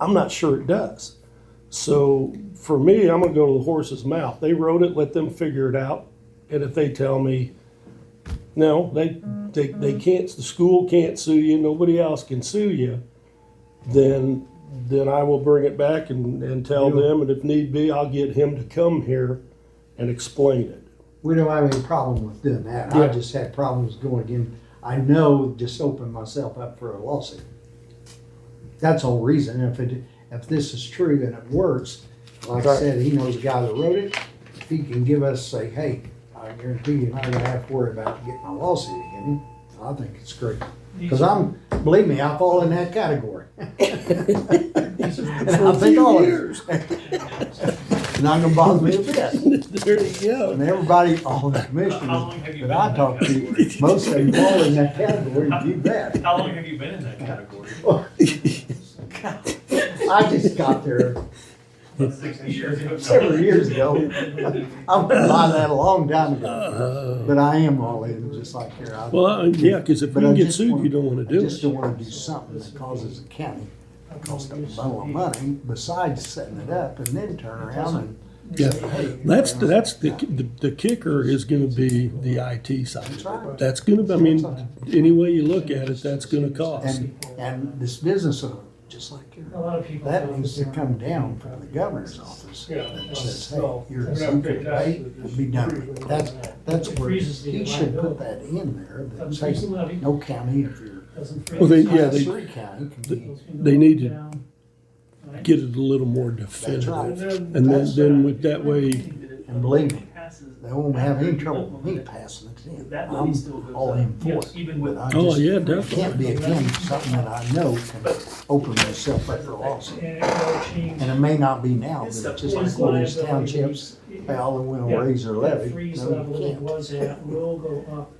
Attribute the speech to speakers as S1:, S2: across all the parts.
S1: I'm not sure it does. So for me, I'm gonna go to the horse's mouth. They wrote it, let them figure it out. And if they tell me, no, they, they, they can't, the school can't sue you, nobody else can sue you, then, then I will bring it back and, and tell
S2: Yeah.
S1: them, and if need be, I'll get him to come here and explain it.
S2: We don't have any problem with doing that. I
S1: Yeah.
S2: just had problems going in. I know just opened myself up for a lawsuit. That's the whole reason. If it, if this is true and it works, like I
S1: Right.
S2: said, he knows the guy that wrote it. If he can give us, say, hey, I guarantee you, I'm gonna have to worry about getting a lawsuit again. I think it's great. Cause I'm, believe me, I fall in that category. And I think all of you. Not gonna bother me a bit.
S1: There you go.
S2: And everybody, all the
S3: How
S2: commissioners
S3: long have you
S2: that I
S3: been in
S2: talk
S3: that
S2: to, most of them fall in that category, you bet.
S3: How long have you been in that category?
S2: I just got there
S3: About Sixty years ago?
S2: several years ago. I've been by that a long time ago, but I am all in, just like here. I-
S1: Well, I- yeah, because if
S2: Uh, But
S1: you
S2: I
S1: get
S2: just
S1: sued,
S2: wanna-
S1: you don't wanna
S2: I
S1: do
S2: just
S1: it.
S2: don't wanna do something that causes the county, a cost a bundle of money, besides setting it up and then turn around and
S1: Yeah.
S2: say, hey.
S1: That's, that's, the, the the kicker is gonna be the IT side.
S2: That's right.
S1: That's gonna, I mean, any way you look at it, that's gonna cost.
S2: And, and this business owner, just like here.
S4: A lot of people.
S2: That needs to come down from the governor's office that says, hey, you're exempted, pay and be done with it. That's, that's where he should put that in there, that says, no county if you're.
S4: Well,
S1: Well, they- yeah, they-
S2: Three county can be,
S1: They need to Get it a little more
S2: that's
S1: definitive.
S2: right.
S1: And then, then with that way,
S2: And believe me, they won't have any trouble with me passing it in. I'm all in for it.
S3: Even
S2: But
S3: with,
S2: I
S1: oh,
S2: just
S1: yeah,
S2: can't
S1: definitely.
S2: be against something that I know can open myself up for lawsuit.
S4: And it will change.
S2: And it may not be now, but it's just like all these townships, they all
S4: Yeah.
S2: will raise their levy.
S4: Freeze
S2: No,
S4: level
S2: you
S4: it
S2: can't.
S4: was at will go up.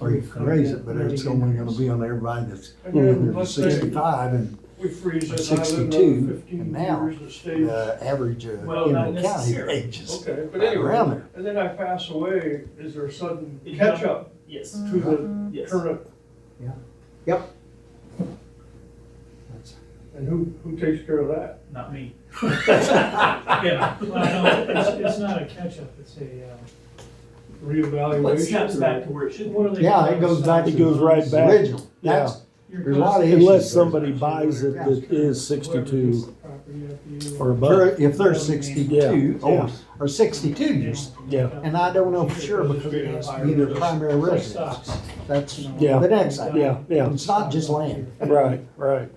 S2: Or you can raise it, but it's only gonna be on everybody that's
S4: Mm-hmm.
S2: under sixty-five and
S5: We freeze
S2: or
S5: it, and I live another
S2: sixty-two,
S5: fifteen
S2: and now,
S5: years, it stays.
S2: the average uh,
S5: Well,
S2: in
S5: not
S2: the county
S4: necessarily.
S2: ranges
S5: Okay, but
S2: around
S5: anyway,
S2: there.
S5: and then I pass away, is there a sudden
S3: It
S5: catch-up
S3: yes,
S5: to the
S4: Uh-huh.
S3: yes.
S5: current, and who, who takes care of that?
S3: Not me. Yeah.
S4: Well, no, it's, it's not a catch-up, it's a, uh,
S3: Well, it snaps back
S5: Reevaluation?
S3: to where it should.
S4: what are they?
S2: Yeah, it goes back to.
S1: It goes right
S2: the
S1: back.
S2: Original, that's,
S4: Your
S2: there's a lot of
S4: cost-
S2: issues.
S1: Unless somebody buys it that is sixty-two or above.
S2: They're- If they're sixty-two,
S1: Yeah.
S2: or, or sixty-two years,
S1: Yeah.
S2: and I don't know for sure because it has to be their primary residence. That's
S1: Yeah.
S2: the next item.
S1: Yeah, yeah.
S2: It's not just land.
S1: Right, right.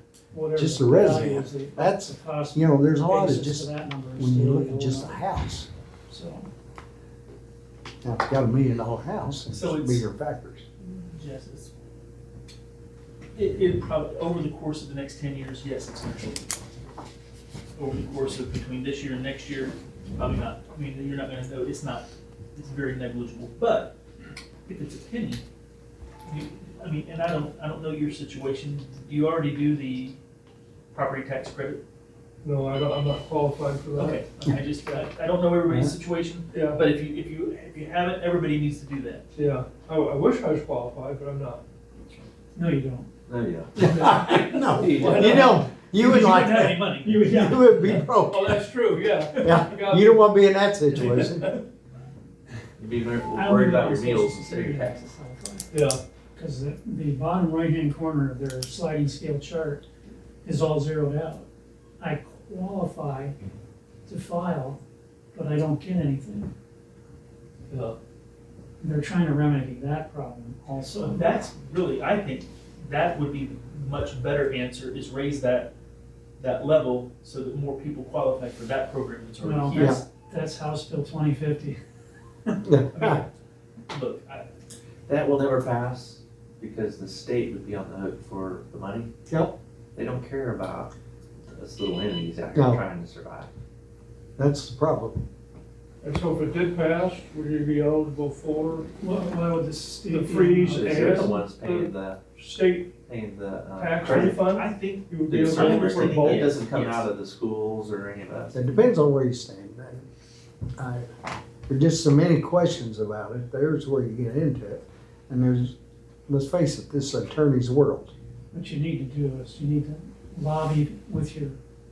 S2: Just the resident. That's- You know, there's a lot of just, when you look at just a house,
S4: So,
S2: now if you got a million dollar house, it's
S3: So it's-
S2: bigger factors.
S3: Yes, it's- It, it probably, over the course of the next ten years, yes, it's gonna change. Over the course of between this year and next year, probably not, I mean, you're not gonna know, it's not, it's very negligible, but if it's a penny, you, I mean, and I don't, I don't know your situation, you already do the property tax credit?
S5: No, I don't, I'm not qualified for that.
S3: Okay, I just, I, I don't know everybody's situation,
S5: Yeah,
S3: but if you, if you, if you haven't, everybody needs to do that.
S5: yeah, I, I wish I was qualified, but I'm not.
S4: no, you don't.
S2: No, you don't, you would like
S3: wouldn't have
S2: that.
S3: any money.
S4: You would-
S2: You would be broke.
S5: Oh, that's true, yeah.
S2: Yeah, you don't wanna be in that situation.
S6: You'd be very-
S4: I
S6: worried
S4: don't
S6: about
S4: know
S6: your
S4: Social
S6: meals instead of your
S4: Security
S6: taxes.
S4: taxes.
S5: Yeah,
S4: Cause the, the bottom right-hand corner of their sliding scale chart is all zeroed out. I qualify to file, but I don't get anything.
S5: yeah.
S4: They're trying to remedy that problem
S3: So
S4: also.
S3: that's really, I think, that would be the much better answer, is raise that, that level so that more people qualify for that program that's
S4: Well,
S3: already here.
S4: that's, that's House Bill twenty fifty.
S3: Look, I,
S6: That will never pass because the state would be on the hook for the money.
S2: Yep.
S6: They don't care about us little entities out here
S2: No.
S6: trying to survive.
S2: That's the problem.
S5: And so if it did pass, would you be eligible for
S4: What, what would this?
S5: The freeze
S6: Because
S5: and-
S6: They're the ones paying the,
S5: state
S6: paying the, uh,
S5: tax
S6: credit.
S5: refund?
S3: I think,
S5: You would be
S6: The
S3: certain
S5: eligible
S6: credit
S5: for
S6: thing,
S5: both?
S6: That doesn't come
S3: Yes.
S6: out of the schools or any of us.
S2: It depends on where you stand. I- I- There are just so many questions about it. There's where you get into it. And there's, let's face it, this attorney's world.
S4: What you need to do is you need to lobby with your